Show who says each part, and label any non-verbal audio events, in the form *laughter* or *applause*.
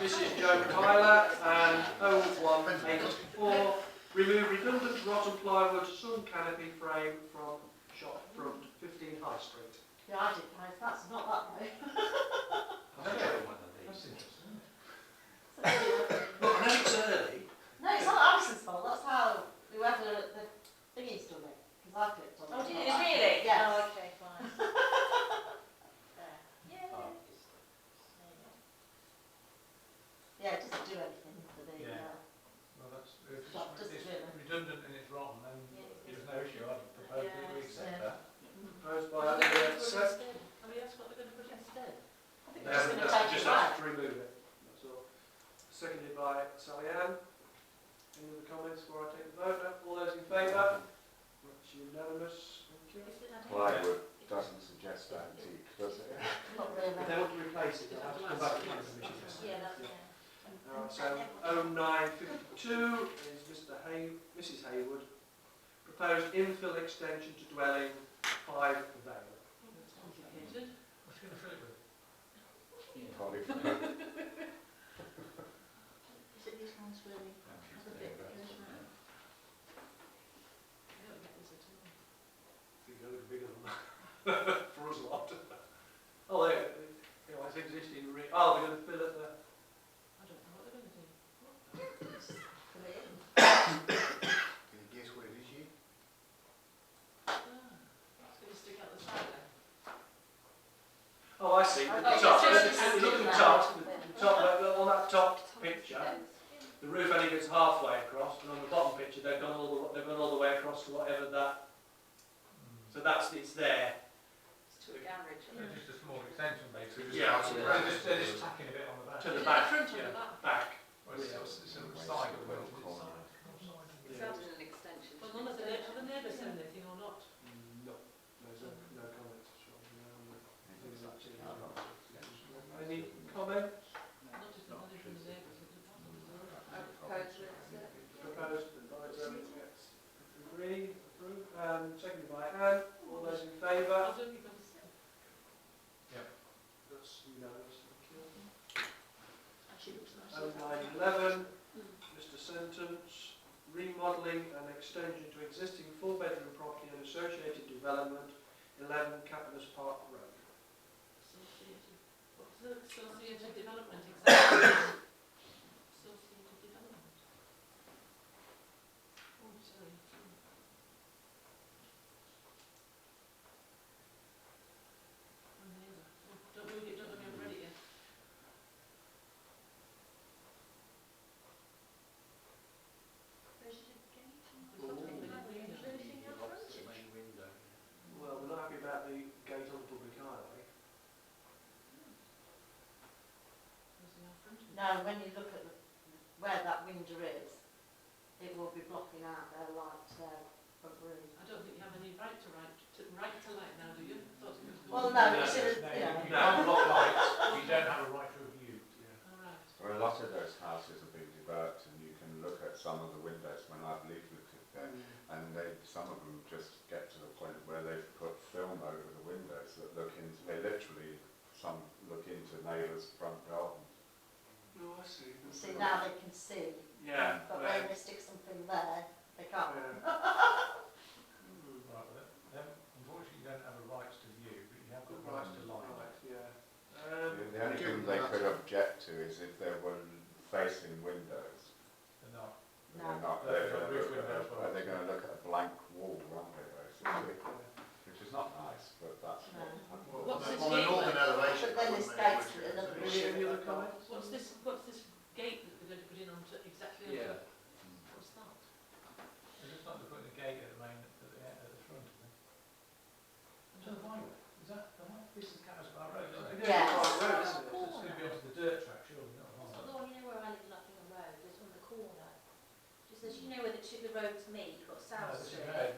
Speaker 1: Mrs Joe Tyler and 01884, remove redundant rotten plywood sun canopy frame from shop front, 15 High Street.
Speaker 2: Yeah, I did pay, that's not that though.
Speaker 1: Look, I know it's early.
Speaker 2: No, it's not Alison's fault, that's how whoever the thingy's done it, because I clicked on it.
Speaker 3: Oh, did
Speaker 2: not
Speaker 3: you
Speaker 2: that.
Speaker 3: really?
Speaker 2: Yes.
Speaker 3: Oh, okay, fine. There. Yeah.
Speaker 2: Yeah, it doesn't do anything for the,
Speaker 4: Yeah.
Speaker 2: uh,
Speaker 4: Well, that's, if it's it's redundant and it's wrong, then there's no issue, I'd propose that we accept that.
Speaker 1: Proposed by Andy, accept.
Speaker 3: I mean, that's what they're going to put instead. I think
Speaker 1: No,
Speaker 3: they're just going to
Speaker 1: that's-
Speaker 3: take
Speaker 1: Just
Speaker 3: it back.
Speaker 1: have to remove it, that's all. Seconded by Sally Ann. Any other comments before I take the vote? No? All those in favour? That's unanimous, thank you.
Speaker 5: Plywood doesn't suggest antique, does it?
Speaker 2: not
Speaker 1: If
Speaker 2: really.
Speaker 1: they want to replace it, they'll have to come back to the commission.
Speaker 3: Yeah, that's, yeah.
Speaker 1: Alright, so 0952 is Mr Hay, Mrs Haywood, proposed infill extension to dwelling five Vale.
Speaker 3: That's complicated.
Speaker 4: What's going to fill it with?
Speaker 5: Polyphenols.
Speaker 3: Is it these ones really? Have a bit, here's mine. I don't get this at all.
Speaker 1: Think they're looking bigger than that, for us lot. Oh, they, you know, it's existing, re- oh, they're going to fill it there.
Speaker 3: I don't know what they're going to do.
Speaker 2: Put it in.
Speaker 5: Can you guess what it is, you?
Speaker 3: Ah, It's going to stick out the side there.
Speaker 1: Oh, I see,
Speaker 2: I
Speaker 1: the
Speaker 2: thought
Speaker 1: top,
Speaker 2: it was
Speaker 1: look
Speaker 2: just
Speaker 1: at- look at the
Speaker 2: sticking
Speaker 1: top,
Speaker 2: out.
Speaker 1: the top, uh, on that top picture, the roof only gets halfway across, and on the bottom picture, they've gone all the, they've gone all the way across to whatever that, so that's, it's there.
Speaker 3: It's to a garage.
Speaker 4: So just a small extension, basically.
Speaker 1: Yeah,
Speaker 4: They're
Speaker 5: absolutely.
Speaker 4: just, they're just tacking a bit on the back.
Speaker 1: To the
Speaker 3: Is it
Speaker 1: back,
Speaker 3: front or
Speaker 1: yeah.
Speaker 3: the back?
Speaker 1: back.
Speaker 4: Well, it's, it's it's a side, of the it's a side.
Speaker 1: Yeah.
Speaker 6: an extension.
Speaker 3: Well, none of the, have the neighbours said anything or not?
Speaker 1: Mm, No, there's no, no comments. Sean. No, no. Things like that. Any comments
Speaker 3: Not if the neighbours from the neighbours. but the problem is all right.
Speaker 1: proposed by Jeremy? Yes. Agree, approve, um, seconded by Anne, all those in
Speaker 3: I
Speaker 1: favour?
Speaker 3: don't think I've said.
Speaker 1: That's unanimous, thank
Speaker 3: Actually, it looks nice.
Speaker 1: you. Oh nine eleven, Mr Sentence, remodelling and extension to existing four-bedroom property and associated development, eleven Capitalist Park Road.
Speaker 3: Associated, what was it, associated development exactly? Associated development. Oh, sorry. My neighbour, oh, don't move it, don't look, I've read it yet. It's not open anymore.
Speaker 1: Well, we're not happy about the gate on the public highway.
Speaker 3: It's in our front.
Speaker 2: Now, when you look at the, where that window is, it will be blocking out their light, their front room.
Speaker 3: I don't think you have any right to right, to right to light now, do you? Thought it was good.
Speaker 2: Well,
Speaker 4: No,
Speaker 2: no,
Speaker 4: no,
Speaker 2: it's in
Speaker 4: no,
Speaker 2: a, yeah.
Speaker 4: you don't block lights, you don't have a right to review.
Speaker 3: All right.
Speaker 5: Well, a lot of those houses have been developed and you can look at some of the windows when I've leafleted there and they, some of them just get to the point where they've put film over the windows that look into, they literally, some look into neighbours' front gardens.
Speaker 1: No, Oh, I see.
Speaker 2: See, now they can see,
Speaker 1: Yeah. Hmm.
Speaker 2: but
Speaker 1: *laughs*
Speaker 2: when they stick something there, they can't.
Speaker 1: Right,
Speaker 4: Right, but then, unfortunately, you don't have a right to view, but you have got rights to light.
Speaker 1: yeah. Um,
Speaker 5: The only thing they could object to is if there were facing windows.
Speaker 4: They're not,
Speaker 5: They're
Speaker 2: No.
Speaker 5: not,
Speaker 4: They're
Speaker 5: they're
Speaker 4: got
Speaker 5: gonna
Speaker 4: roof
Speaker 5: look at,
Speaker 4: windows,
Speaker 5: a- they're gonna look at a blank wall, aren't they, basically?
Speaker 1: yeah.
Speaker 5: Which is not nice, but that's what
Speaker 2: No.
Speaker 5: happens.
Speaker 3: What's
Speaker 6: On an organ elevation.
Speaker 2: But then this gates to another
Speaker 1: Is there any other comments?
Speaker 3: What's this, what's this gate that they're going to put in on to, exactly onto?
Speaker 1: Yeah.
Speaker 3: What's that?
Speaker 4: they're just not putting a gate at the main, at the, at the front. isn't it? Is that the highway? Is that the highway? This is Carisbar Road, isn't it?
Speaker 1: Yeah,
Speaker 2: Yes.
Speaker 1: right, right, isn't it?
Speaker 4: It's going to be onto the dirt track, surely, not
Speaker 6: It's
Speaker 4: the highway.
Speaker 6: not the one, you know where I live in Nottingham Road, it's on the corner. Just as you know where the two, the roads meet, you've got South
Speaker 4: No, it's a
Speaker 6: Street.
Speaker 4: road,